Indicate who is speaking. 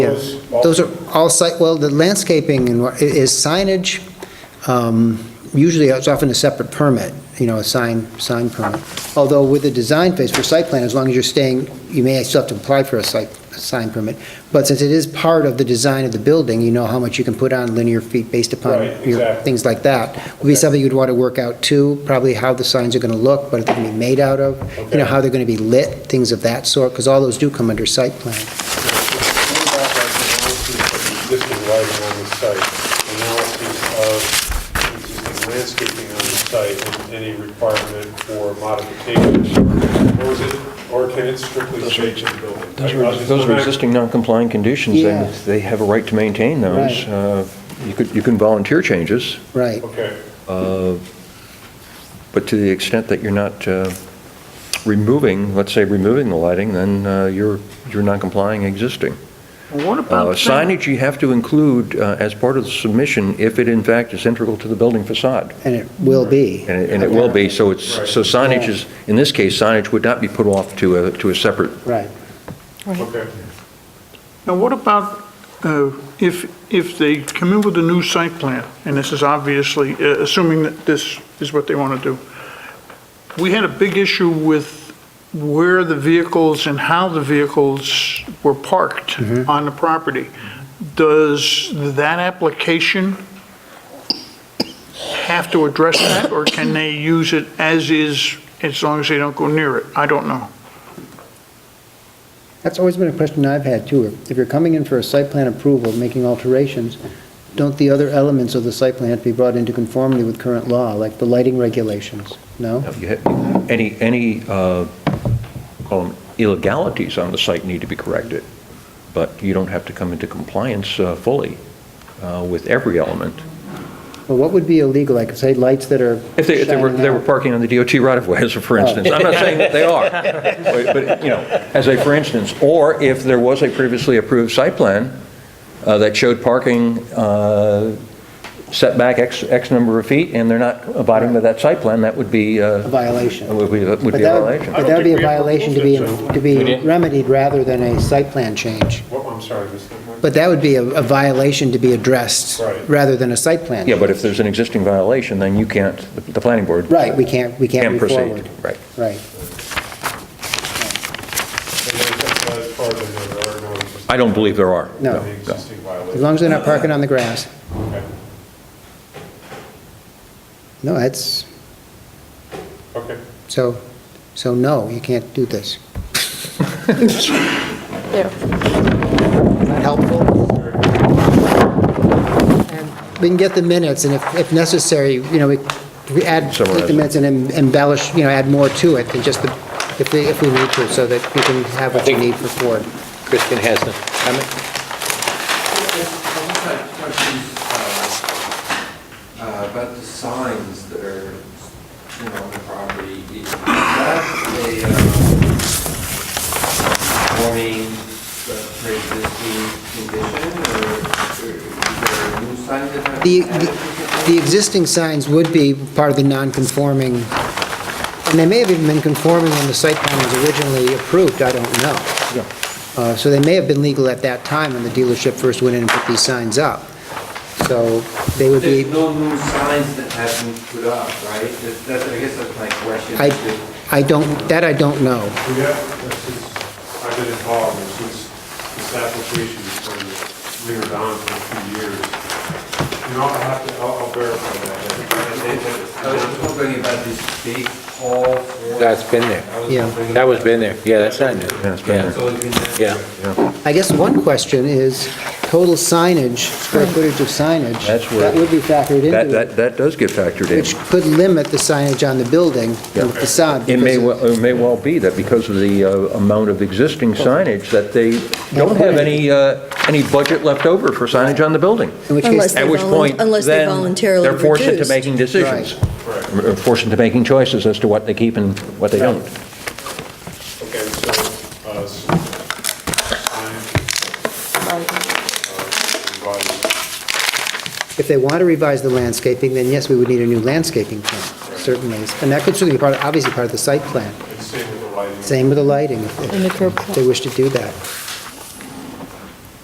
Speaker 1: Those are all site, well, the landscaping and what- i- is signage, um, usually it's often a separate permit, you know, a sign, sign permit. Although with the design phase for site plan, as long as you're staying, you may still have to apply for a site, a sign permit. But since it is part of the design of the building, you know how much you can put on linear feet based upon
Speaker 2: Right,
Speaker 1: your,
Speaker 2: exactly.
Speaker 1: things like that. Would be something you'd want to work out too, probably how the signs are going to look, what they're going to be made out of, you know,
Speaker 2: Okay.
Speaker 1: how they're going to be lit, things of that sort, because all those do come under site plan.
Speaker 2: Going back like the analysis of the Existing lighting on the site, analysis of existing landscaping on the site, and any requirement for modifications, or is it, or can it strictly stay to the building?
Speaker 3: Those are, those are existing non-compliant conditions, and they have a right to maintain those.
Speaker 1: Right.
Speaker 3: Uh, You could, you can volunteer changes,
Speaker 1: Right.
Speaker 2: Okay,
Speaker 3: uh, but to the extent that you're not uh, removing, let's say removing the lighting, then uh, you're, you're non-complying existing.
Speaker 4: What
Speaker 3: Uh,
Speaker 4: about that?
Speaker 3: Signage you have to include uh, as part of the submission if it in fact is integral to the building facade,
Speaker 1: And it will be.
Speaker 3: and it, and it will be, so it's, so signage is, in this case, signage would not be put off to a, to a separate
Speaker 1: Right.
Speaker 2: okay.
Speaker 4: Now, what about uh, if, if they come in with a new site plan, and this is obviously, uh, assuming that this is what they want to do, we had a big issue with where the vehicles and how the vehicles were parked on the property. Does that application have to address that, or can they use it as is, as long as they don't go near it? I don't know.
Speaker 1: That's always been a question I've had too. If you're coming in for a site plan approval, making alterations, don't the other elements of the site plan have to be brought into conformity with current law, like the lighting regulations? No?
Speaker 3: No, you had- Any, any, uh, call them illegalities on the site need to be corrected, but you don't have to come into compliance uh, fully uh, with every element.
Speaker 1: Well, what would be illegal? Like, say, lights that are
Speaker 3: If they, if they were, they were
Speaker 1: shining out?
Speaker 3: parking on the DOT right-of-way, as a for instance, I'm not saying that they are, but, but, you know, as a for instance, or if there was a previously approved site plan uh, that showed parking uh, setback X, X number of feet, and they're not abiding by that site plan, that would be,
Speaker 1: A
Speaker 3: uh,
Speaker 1: violation.
Speaker 3: would be, would
Speaker 1: But
Speaker 3: be a
Speaker 1: that
Speaker 3: violation.
Speaker 1: But that would be a violation to be,
Speaker 2: I don't think
Speaker 1: to be remedied rather than a site plan change.
Speaker 2: Well, I'm sorry, Mr.
Speaker 1: But that would be a a violation to be addressed
Speaker 2: Right.
Speaker 1: rather than a site plan.
Speaker 3: Yeah, but if there's an existing violation, then you can't, the- the planning board.
Speaker 1: Right, we can't, we can't
Speaker 3: Can't
Speaker 1: move
Speaker 3: proceed,
Speaker 1: forward.
Speaker 3: right.
Speaker 1: Right.
Speaker 2: As far as I know, there are no existing-
Speaker 3: I don't believe there are.
Speaker 1: No.
Speaker 2: any Existing
Speaker 1: As long
Speaker 2: violations.
Speaker 1: as they're not parking on the grass.
Speaker 2: Okay.
Speaker 1: No, that's,
Speaker 2: Okay.
Speaker 1: so, so no, you can't do this. Not Helpful? We can get the minutes, and if, if necessary, you know, we, we add,
Speaker 3: Summarize
Speaker 1: take the
Speaker 3: it.
Speaker 1: minutes and em- embellish, you know, add more to it than just the, if we, if we need to, so that we can have what we need for Ford.
Speaker 5: Kristen has a comment?
Speaker 6: I've had questions uh, uh, about the signs that are, you know, on the property. Is that a uh, warning uh, pre-existing condition, or or is there a new sign that has?
Speaker 1: The, the- the existing signs would be part of the non-conforming, and they may have even been conforming when the site plan was originally approved, I don't know. Uh, So they may have been legal at that time when the dealership first went in and put these signs up. So they would be,
Speaker 6: There's no new signs that have been put up, right? That- That's, I guess that's my question.
Speaker 1: I, I don't, that I don't know.
Speaker 2: Yeah, this is, I've been involved and since this application has been lingered on for a few years. You know, I'll have to, I'll I'll verify that.
Speaker 6: I was wondering about this big hall. for-
Speaker 5: That's been there.
Speaker 6: I was
Speaker 1: Yeah.
Speaker 6: wondering-
Speaker 5: That was been there. Yeah, that's not new. Yeah,
Speaker 3: it's been there.
Speaker 6: It's always been there.
Speaker 5: Yeah.
Speaker 1: I guess one question is total signage, square footage of signage.
Speaker 3: That's where-
Speaker 1: That would be factored
Speaker 3: That,
Speaker 1: into it,
Speaker 3: that, that does get factored in.
Speaker 1: which could limit the signage on the building, the
Speaker 3: Yeah.
Speaker 1: facade.
Speaker 3: It may,
Speaker 1: because
Speaker 3: well- it may well be that because of the uh, amount of existing signage, that they don't have any, uh, any budget left over for signage on the building.
Speaker 1: In which
Speaker 7: Unless
Speaker 1: case,
Speaker 7: they
Speaker 3: At which
Speaker 7: volun-
Speaker 3: point,
Speaker 7: unless they
Speaker 3: then,
Speaker 7: voluntarily
Speaker 3: they're forced into
Speaker 7: reduced.
Speaker 3: making decisions. Or Forced into making choices as to what they keep and what they don't.
Speaker 2: Okay, so, uh, s- I'm, uh, invited.
Speaker 1: if they want to revise the landscaping, then yes, we would need a new landscaping plan, certainly. And that could certainly be part, obviously part of the site plan.
Speaker 2: and same with the lighting.
Speaker 1: Same with the lighting, if-
Speaker 7: And the curb
Speaker 1: if they wish to do that.